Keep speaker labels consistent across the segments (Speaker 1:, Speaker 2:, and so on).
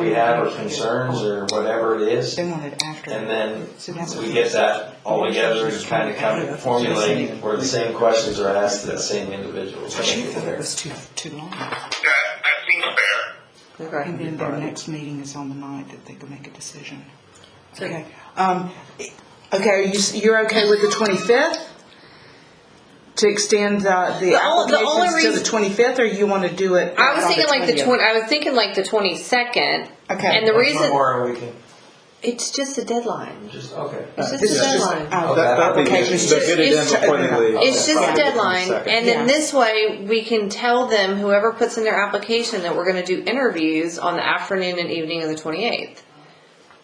Speaker 1: we have or concerns or whatever it is.
Speaker 2: They wanted after.
Speaker 1: And then
Speaker 2: So that's
Speaker 1: we get that all together and kind of kind of formulate where the same questions are asked to the same individuals.
Speaker 2: She thought it was too, too long.
Speaker 3: That, that seems fair.
Speaker 2: And then their next meeting is on the ninth that they can make a decision. Okay, um, okay, you, s- you're okay with the twenty-fifth? To extend the, the
Speaker 4: The ol- the only
Speaker 2: applications to the
Speaker 4: reason-
Speaker 2: twenty-fifth, or you wanna do it?
Speaker 4: I was
Speaker 2: on
Speaker 4: thinking like the
Speaker 2: 20th?
Speaker 4: twenty. I was thinking like the twenty second.
Speaker 2: Okay.
Speaker 4: And the reason
Speaker 1: Or we can
Speaker 4: it's just a deadline.
Speaker 1: just, okay.
Speaker 4: It's just
Speaker 5: It's
Speaker 4: a
Speaker 5: just-
Speaker 4: deadline.
Speaker 2: Oh,
Speaker 1: That- that'd be
Speaker 2: okay,
Speaker 1: just-
Speaker 2: it's
Speaker 1: so
Speaker 2: just-
Speaker 5: get it
Speaker 2: it's
Speaker 5: in
Speaker 2: to open it
Speaker 5: accordingly.
Speaker 2: up.
Speaker 4: It's just a
Speaker 5: Fine.
Speaker 4: deadline, and
Speaker 2: Yeah.
Speaker 4: then this way we can tell them whoever puts in their application that we're going to do interviews on the afternoon and evening of the twenty eighth.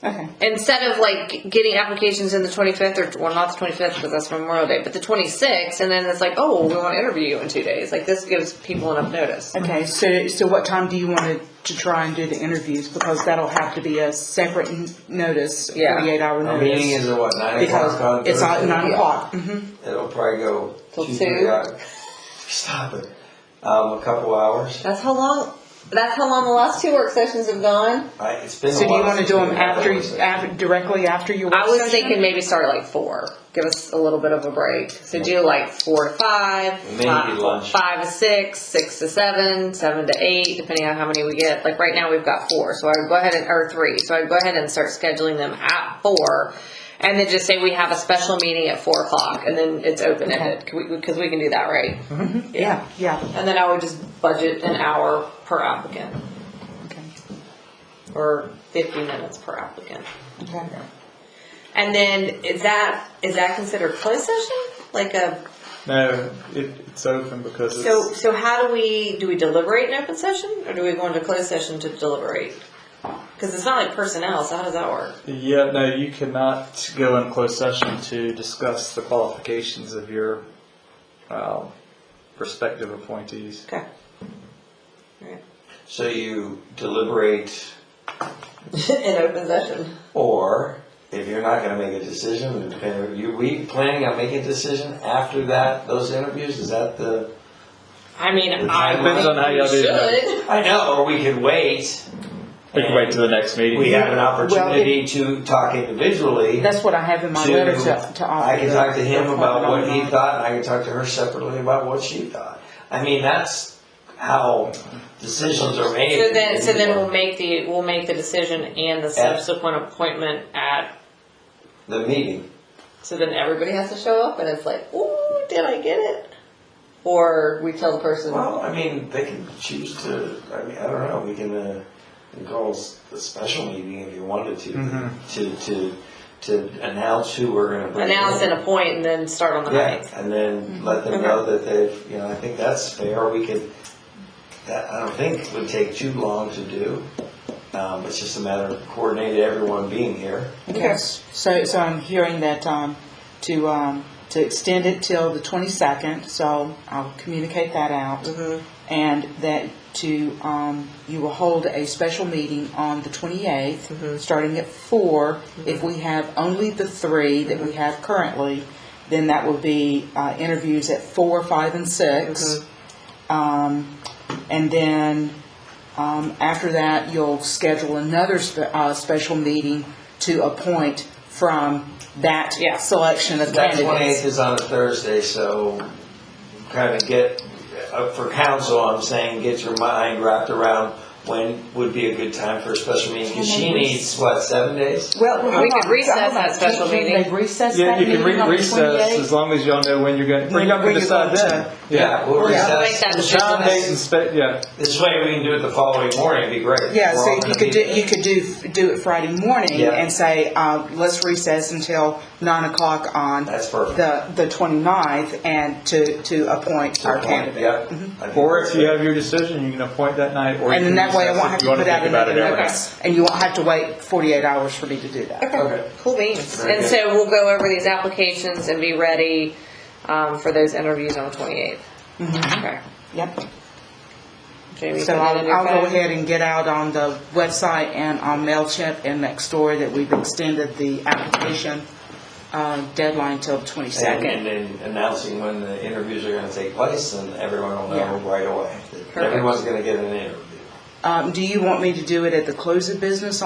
Speaker 2: Okay,
Speaker 4: Instead of like getting applications in the 25th or well not the 25th because that's Memorial Day, but the 26th, and then it's like, oh, we want to interview you in two days. Like this gives people enough notice.
Speaker 2: okay, so, so what time do you want to try and do the interviews? Because that'll have to be a separate n- notice,
Speaker 4: Yeah.
Speaker 2: forty-eight hour
Speaker 1: Our meeting
Speaker 2: notice.
Speaker 1: is at what, nine o'clock on
Speaker 2: Because it's at
Speaker 1: Thursday?
Speaker 2: nine
Speaker 4: Yeah.
Speaker 2: o'clock,
Speaker 1: Mm-hmm.
Speaker 2: mhm,
Speaker 1: It'll probably go.
Speaker 4: Till
Speaker 1: two,
Speaker 4: two?
Speaker 1: three hours. Stop it. Um, a couple hours.
Speaker 4: That's how long. That's how long the last two work sessions have gone.
Speaker 1: I, it's been a while.
Speaker 2: so do you wanna
Speaker 1: since
Speaker 2: do them
Speaker 1: we've had
Speaker 2: after,
Speaker 1: one, so-
Speaker 2: after, directly after your work
Speaker 4: I was
Speaker 2: session?
Speaker 4: thinking maybe start at like four. Give us a little bit of a break. So do like four to five,
Speaker 1: Maybe
Speaker 4: five,
Speaker 1: lunch.
Speaker 4: five to six, six to seven, seven to eight, depending on how many we get. Like right now we've got four, so I would go ahead and or three. So I'd go ahead and start scheduling them at four, and then just say we have a special meeting at four o'clock, and then it's open ended because we can do that, right?
Speaker 2: Yeah, yeah,
Speaker 4: And then I would just budget an hour per applicant
Speaker 2: okay,
Speaker 4: or fifty minutes per applicant.
Speaker 2: okay.
Speaker 4: And then is that is that considered closed session? Like a
Speaker 5: No, it, it's open because it's.
Speaker 4: so so how do we do we deliberate in open session or do we go into closed session to deliberate? Because it's not like personnel, so how does that work?
Speaker 5: Yeah, no, you cannot go in closed session to discuss the qualifications of your um, prospective appointees.
Speaker 4: Okay. Alright.
Speaker 1: So you deliberate,
Speaker 4: in open session.
Speaker 1: or if you're not gonna make a decision, depending, are you, we planning on making a decision after that, those interviews, is that the?
Speaker 4: I mean, I
Speaker 1: Depends
Speaker 4: think
Speaker 5: on how
Speaker 4: we
Speaker 5: y'all do that.
Speaker 4: should.
Speaker 1: I know, or we could wait.
Speaker 5: We can wait to the next meeting.
Speaker 1: We have an opportunity to talk individually.
Speaker 2: That's what I have in my letter to, to offer.
Speaker 1: I can talk to him
Speaker 2: the-
Speaker 1: about what he
Speaker 2: the-
Speaker 1: thought, and I can talk to her separately about what she thought. I mean, that's how decisions are made.
Speaker 4: So then, so then we'll make the we'll make the decision and the subsequent appointment at.
Speaker 1: The meeting,
Speaker 4: So then everybody has to show up, and it's like, ooh, did I get it? Or we tell the person.
Speaker 1: well, I mean, they can choose to, I mean, I don't know, we can, uh, we can call s- a special meeting if you wanted to,
Speaker 5: Mhm.
Speaker 1: to, to, to announce who we're gonna bring in.
Speaker 4: announce and appoint and then start on the
Speaker 1: Yeah,
Speaker 4: ninth.
Speaker 1: and then let them know that they've, you know, I think that's fair, we could, that, I don't think would take too long to do. Um, it's just a matter of coordinating everyone being here.
Speaker 2: Okay, so, so I'm hearing that, um, to, um, to extend it till the twenty-second, so I'll communicate that out.
Speaker 1: Mm-hmm.
Speaker 2: And that to, um, you will hold a special meeting on the
Speaker 4: Mm-hmm.
Speaker 2: twenty-eighth, starting at four. If we have only the three that we have currently, then that will be, uh, interviews at four, five, and six.
Speaker 4: Mm-hmm.
Speaker 2: Um, and then, um, after that, you'll schedule another spe- uh, special meeting to appoint from that
Speaker 4: Yeah.
Speaker 2: selection of
Speaker 1: That twenty-eighth
Speaker 2: candidates.
Speaker 1: is on a Thursday, so kind of get, uh, for council, I'm saying, get your mind wrapped around when would be a good time for a special meeting, because she needs, what, seven days?
Speaker 2: Well,
Speaker 4: We
Speaker 2: hold
Speaker 4: could
Speaker 2: on,
Speaker 4: recess
Speaker 2: hold on.
Speaker 4: that special
Speaker 2: Can- can
Speaker 4: meeting.
Speaker 2: They recess
Speaker 5: Yeah,
Speaker 2: that
Speaker 5: you can
Speaker 2: meeting
Speaker 5: re-
Speaker 2: on the
Speaker 5: recess
Speaker 2: 28th?
Speaker 5: as long as y'all know when you're going,
Speaker 2: When
Speaker 5: you
Speaker 2: you're
Speaker 5: can decide
Speaker 2: going to.
Speaker 5: then.
Speaker 1: Yeah, we'll
Speaker 2: Yeah.
Speaker 4: Make
Speaker 1: recess.
Speaker 4: that
Speaker 5: Time, date, and
Speaker 4: decision.
Speaker 5: spe, yeah.
Speaker 1: This way we can do it the following morning, it'd be great.
Speaker 2: Yeah,
Speaker 1: We're all
Speaker 2: so you
Speaker 1: gonna
Speaker 2: could
Speaker 1: be
Speaker 2: do,
Speaker 1: there.
Speaker 2: you could do, do it Friday morning
Speaker 1: Yeah.
Speaker 2: and say, uh, let's recess until nine o'clock on
Speaker 1: That's perfect.
Speaker 2: the, the twenty-ninth and to, to appoint our candidate. Mm-hmm.
Speaker 1: Yeah.
Speaker 5: Or if you have your decision, you can appoint that night, or you
Speaker 2: And
Speaker 5: can
Speaker 2: then that way I
Speaker 5: recess
Speaker 2: won't
Speaker 5: if
Speaker 2: have
Speaker 5: you
Speaker 2: to
Speaker 5: want
Speaker 2: put
Speaker 5: to
Speaker 2: out
Speaker 5: think about
Speaker 2: another
Speaker 5: it anyway.
Speaker 2: notice. And you won't have to wait forty-eight hours for me to do that.
Speaker 1: Okay.
Speaker 4: Cool beans.
Speaker 1: Very
Speaker 4: And
Speaker 1: good.
Speaker 4: so we'll go over these applications and be ready um, for those interviews on the 28th. Okay.
Speaker 2: Yep.
Speaker 4: Jamie,
Speaker 2: So
Speaker 4: put that in
Speaker 2: I'll,
Speaker 4: your
Speaker 2: I'll go
Speaker 4: phone.
Speaker 2: ahead and get out on the website and on MailChimp and Nextdoor that we've extended the application, um, deadline till the
Speaker 1: And
Speaker 2: twenty-second.
Speaker 1: and then announcing when the interviews are gonna take place, and everyone will know
Speaker 2: Yeah.
Speaker 1: right away. Everyone's gonna get an interview.
Speaker 2: Um, do you want me to do it at the close of business